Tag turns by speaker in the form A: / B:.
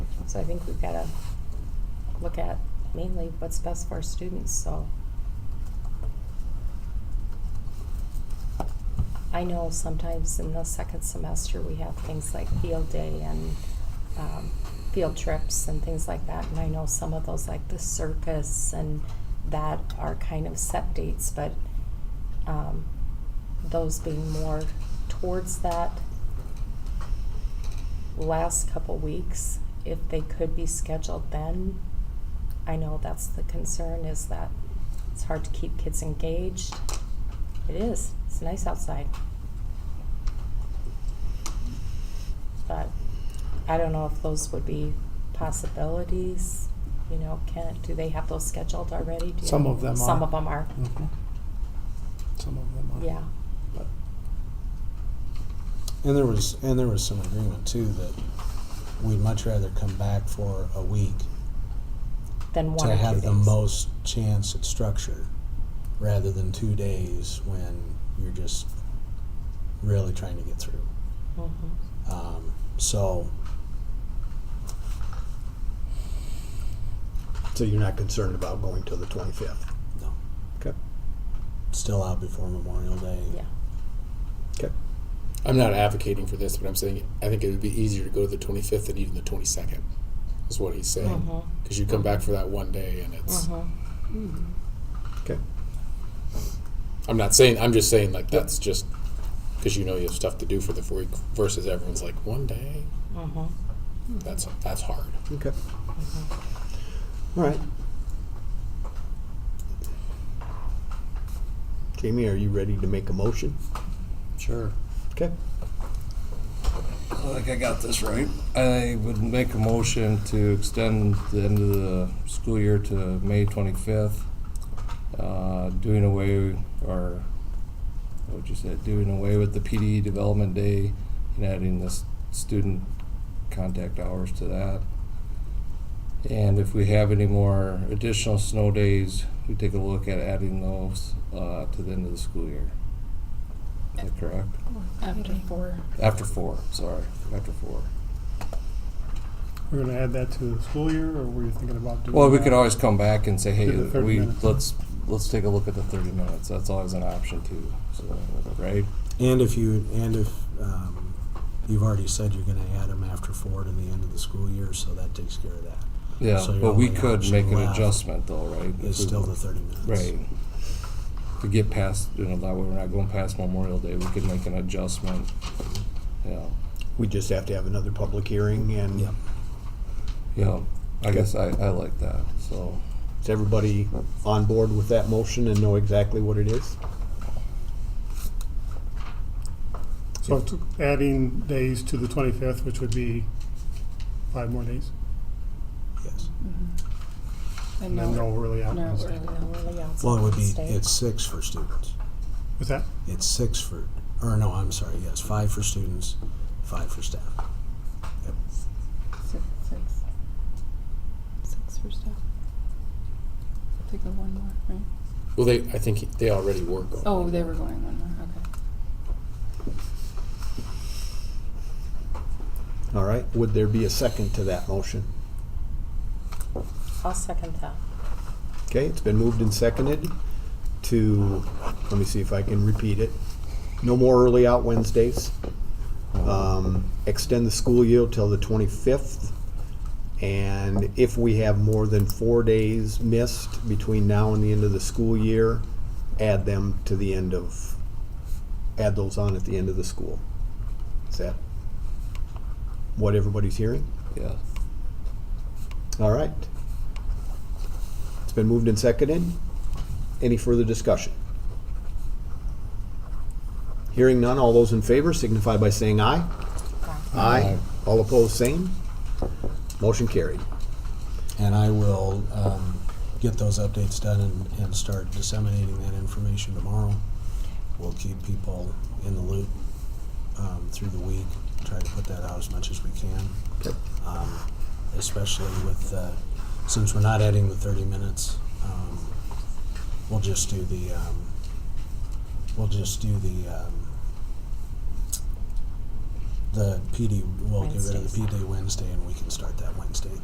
A: So I think we've gotta look at mainly what's best for our students, so. I know sometimes in the second semester, we have things like field day and, um, field trips and things like that. And I know some of those, like the circus and that are kind of set dates, but, um, those being more towards that last couple weeks, if they could be scheduled then. I know that's the concern is that it's hard to keep kids engaged. It is. It's nice outside. But I don't know if those would be possibilities. You know, can do they have those scheduled already? Do you
B: Some
A: know?
B: of them are.
A: Some of them are.
B: Mhm. Some of them are.
A: Yeah.
B: But
C: And there was, and there was some agreement too that we'd much rather come back for a week
A: Then one
C: to
A: or two
C: have the
A: days.
C: most chance at structure rather than two days when you're just really trying to get through.
A: Mhm.
C: Um, so,
D: So you're not concerned about going till the 25th?
C: no,
D: Okay.
C: still out before Memorial Day.
A: Yeah.
D: Okay.
E: I'm not advocating for this, but I'm saying I think it would be easier to go to the 25th than even the 22nd, is what he's saying.
A: Mhm.
E: Because you come back for that one day and it's.
A: Mhm.
D: Okay.
E: I'm not saying, I'm just saying like that's just because you know you have stuff to do for the week versus everyone's like one day.
A: Mhm.
E: That's that's hard.
D: Okay. Mm-hmm. All right. Jamie, are you ready to make a motion?
C: Sure.
D: Okay.
F: I think I got this right. I would make a motion to extend the end of the school year to May 25th, uh, doing away, or what would you say, doing away with the PD Development Day and adding this student contact hours to that. And if we have any more additional snow days, we take a look at adding those uh, to the end of the school year. Is that correct?
G: After four.
F: After four, sorry, after four.
B: we're going to add that to the school year, or were you thinking about doing
F: Well, we could
B: that?
F: always come back and say, hey,
B: Do the 30
F: we,
B: minutes.
F: let's, let's take a look at the thirty minutes, that's always an option too, so, right?
C: And if you, and if um, you've already said you're going to add them after four to the end of the school year, so that takes care of that.
F: Yeah,
C: So your
F: but we
C: only
F: could
C: option
F: make an
C: left
F: adjustment though, right?
C: It's
F: If we-
C: still the 30 minutes.
F: Right. To get past, you know, that way we're not going past Memorial Day, we could make an adjustment, yeah,
D: We just have to have another public hearing and
C: Yep.
F: yeah, I guess I, I like that, so.
D: is everybody on board with that motion and know exactly what it is?
B: So it's adding days to the 25th, which would be five more days,
C: Yes.
B: and then no early out.
G: No,
A: Really, no, really outside
C: Well, it would be,
A: state.
C: it's six for students.
B: What's that?
C: It's six for, or no, I'm sorry, yes, five for students, five for staff. Yep.
G: Six, six. Six for staff. Take the one more, right?
E: Well, they I think he- they already work on.
G: Oh, they were going one more, okay.
D: All right, would there be a second to that motion?
A: I'll second that.
D: Okay, it's been moved and seconded to, let me see if I can repeat it. No more early out Wednesdays. Um, Extend the school year till the 25th. And if we have more than four days missed between now and the end of the school year, add them to the end of, add those on at the end of the school. Is that what everybody's hearing?
F: Yeah,
D: All right. It's been moved and seconded. Any further discussion? Hearing none, all those in favor signify by saying aye. Aye. All opposed, same. Motion carried.
C: And I will um, get those updates done and, and start disseminating that information tomorrow. We'll keep people in the loop um, through the week, try to put that out as much as we can.
D: Okay.
C: Um, Especially with, uh, since we're not adding the 30 minutes, um, we'll just do the, um, we'll just do the, um, the PD, we'll get rid of the
A: Wednesdays.
C: PD Wednesday and we can start that Wednesday.